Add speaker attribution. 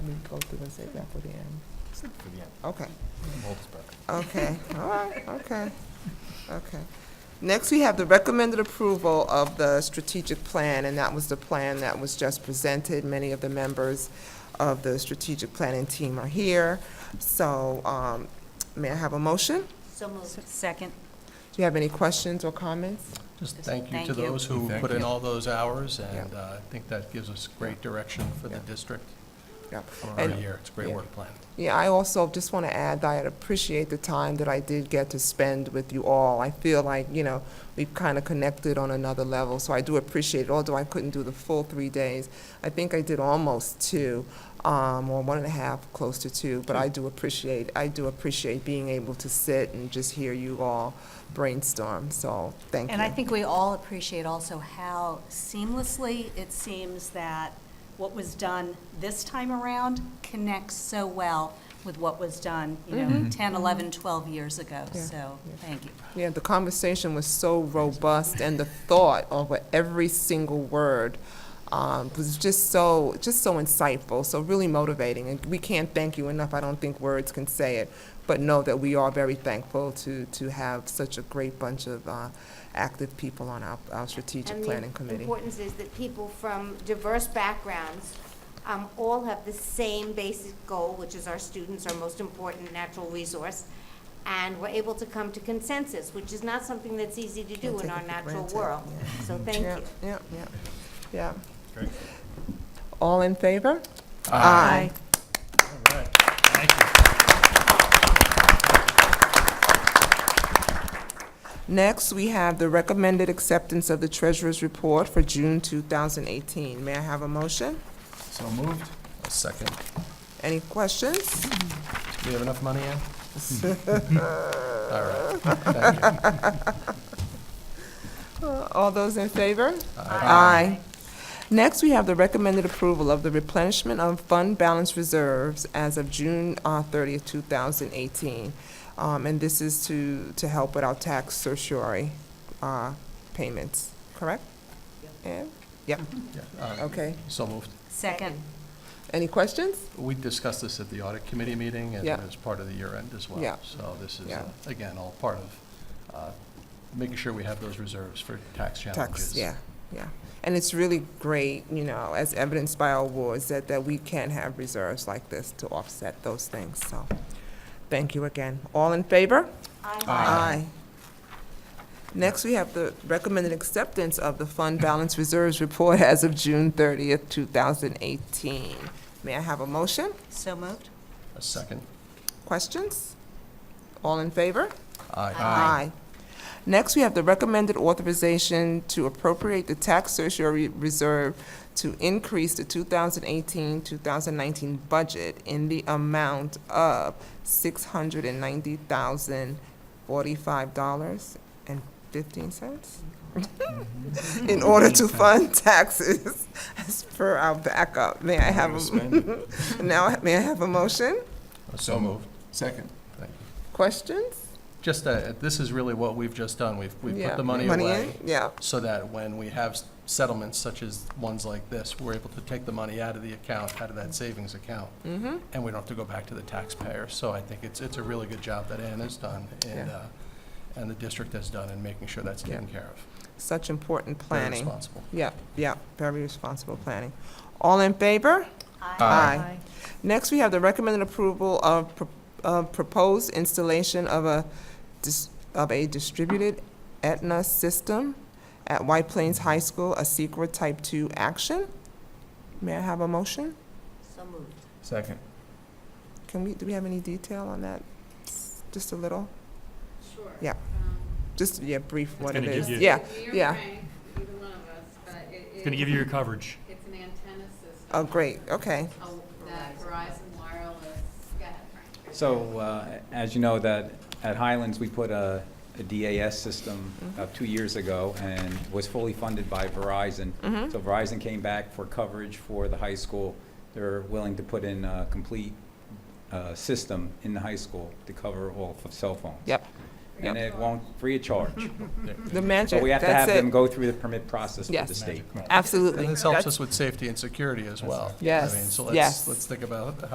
Speaker 1: go through and save that for the end?
Speaker 2: for the end.
Speaker 1: Okay,
Speaker 2: Hold this back.
Speaker 1: okay, all right, okay, okay. Next, we have the recommended approval of the strategic plan, and that was the plan that was just presented. Many of the members of the strategic planning team are here. So, um, may I have a motion?
Speaker 3: So moved. Second.
Speaker 1: Do you have any questions or comments?
Speaker 4: Just thank you
Speaker 3: Thank
Speaker 4: to
Speaker 3: you.
Speaker 4: those who
Speaker 2: Thank
Speaker 4: put in
Speaker 2: you.
Speaker 4: all those hours, and uh, I think that gives us great direction for the
Speaker 1: Yeah.
Speaker 4: district
Speaker 1: Yep.
Speaker 4: for our
Speaker 1: And-
Speaker 4: year. It's a great
Speaker 1: Yeah.
Speaker 4: work plan.
Speaker 1: Yeah, I also just want to add that I appreciate the time that I did get to spend with you all. I feel like, you know, we've kind of connected on another level, so I do appreciate it, although I couldn't do the full three days. I think I did almost two, um, or one and a half, close to two, but I do appreciate, I do appreciate being able to sit and just hear you all brainstorm, so thank you.
Speaker 3: And I think we all appreciate also how seamlessly it seems that what was done this time around connects so well with what was done, you
Speaker 1: Mm-hmm.
Speaker 3: know, 10, 11, 12 years ago.
Speaker 1: Yeah,
Speaker 3: So,
Speaker 1: yeah.
Speaker 3: thank you.
Speaker 1: Yeah, the conversation was so robust, and the thought over every single word um, was just so, just so insightful, so really motivating. And we can't thank you enough. I don't think words can say it, but know that we are very thankful to, to have such a great bunch of uh, active people on our, our strategic
Speaker 5: And the
Speaker 1: planning committee.
Speaker 5: importance is that people from diverse backgrounds um, all have the same basic goal, which is our students, our most important natural resource, and we're able to come to consensus, which is not something that's easy to
Speaker 1: Can't
Speaker 5: do in
Speaker 1: take
Speaker 5: our
Speaker 1: it for
Speaker 5: natural
Speaker 1: granted,
Speaker 5: world.
Speaker 1: yeah.
Speaker 5: So thank
Speaker 1: Yeah,
Speaker 5: you.
Speaker 1: Yeah, yeah, yeah.
Speaker 2: Great.
Speaker 1: All in favor?
Speaker 2: All right, thank you.
Speaker 1: Next, we have the recommended acceptance of the treasurer's report for June 2018. May I have a motion?
Speaker 2: So moved.
Speaker 4: Second.
Speaker 1: Any questions?
Speaker 4: Do we have enough money in? All right. Thank you.
Speaker 1: Uh, All those in favor? Aye. Next, we have the recommended approval of the replenishment of fund balance reserves as of June uh, 30th, 2018. Um, And this is to, to help with our tax certiorari uh, payments, correct? Yeah? Yep,
Speaker 4: Yeah, uh,
Speaker 1: okay.
Speaker 4: So moved.
Speaker 3: Second.
Speaker 1: Any questions?
Speaker 4: We discussed this at the audit committee meeting and
Speaker 1: Yeah.
Speaker 4: as part of the year end as well.
Speaker 1: Yeah.
Speaker 4: So this is,
Speaker 1: Yeah.
Speaker 4: uh, again, all part of uh, making sure we have those reserves for tax challenges.
Speaker 1: Tax, yeah, yeah. And it's really great, you know, as evidenced by our awards, that, that we can have reserves like this to offset those things, so. Thank you again. All in favor? Aye. Next, we have the recommended acceptance of the fund balance reserves report as of June thirtieth, two thousand eighteen. May I have a motion?
Speaker 3: So moved.
Speaker 4: A second.
Speaker 1: Questions? All in favor?
Speaker 4: Aye.
Speaker 1: Aye. Next, we have the recommended authorization to appropriate the tax surcharge reserve to increase the 2018-2019 budget in the amount of $690,045.15 in order to fund taxes as per our backup. May I have, a- now, may I have a motion?
Speaker 4: So moved.
Speaker 2: Second.
Speaker 4: Thank you.
Speaker 1: Questions?
Speaker 4: Just, uh, this is really what we've just done. We've, we've
Speaker 1: Yeah.
Speaker 4: put the money
Speaker 1: in?
Speaker 4: away
Speaker 1: Yeah.
Speaker 4: so that when we have s- settlements such as ones like this, we're able to take the money out of the account, out of that savings account.
Speaker 1: Mm-hmm.
Speaker 4: And we don't have to go back to the taxpayer. So I think it's, it's a really good job that Ann has done and,
Speaker 1: Yeah.
Speaker 4: uh, and the district has done in making sure that's taken care of.
Speaker 1: Such important
Speaker 4: Very
Speaker 1: planning.
Speaker 4: responsible.
Speaker 1: Yep, yep, very responsible planning. All in favor? Aye. Next, we have the recommended approval of, pro- of proposed installation of a, dis- of a distributed Aetna system at White Plains High School, a secret type two action. May I have a motion?
Speaker 3: So moved.
Speaker 2: Second.
Speaker 1: Can we, do we have any detail on that? Just a little,
Speaker 6: Sure.
Speaker 1: Yeah. just, yeah, brief what it
Speaker 2: gonna give
Speaker 1: is.
Speaker 2: you-
Speaker 1: Yeah,
Speaker 6: You're
Speaker 1: yeah.
Speaker 6: Frank, either one of us, but it is.
Speaker 2: It's gonna give you your coverage.
Speaker 6: It's an antenna system.
Speaker 1: Oh, great, okay.
Speaker 6: Oh, That Verizon wireless, go ahead, Frank.
Speaker 7: So, uh, as you know, that at Highlands, we put a a DAS system
Speaker 1: Mm-hmm.
Speaker 7: about two years ago and was fully funded by Verizon.
Speaker 1: Mm-hmm.
Speaker 7: So Verizon came back for coverage for the high school. They're willing to put in a complete uh, system in the high school to cover all f- cell phones.
Speaker 1: Yep,
Speaker 7: And
Speaker 1: yep.
Speaker 7: it won't, free of charge.
Speaker 1: the magic,
Speaker 7: But we have to
Speaker 1: that's
Speaker 7: have them
Speaker 1: it.
Speaker 7: go through the permit process with
Speaker 1: Yes.
Speaker 7: the state.
Speaker 1: Absolutely.
Speaker 4: And this
Speaker 1: That's-
Speaker 4: helps us with safety and security as well. I
Speaker 1: Yes,
Speaker 4: mean, So
Speaker 1: yes.
Speaker 4: let's, let's think about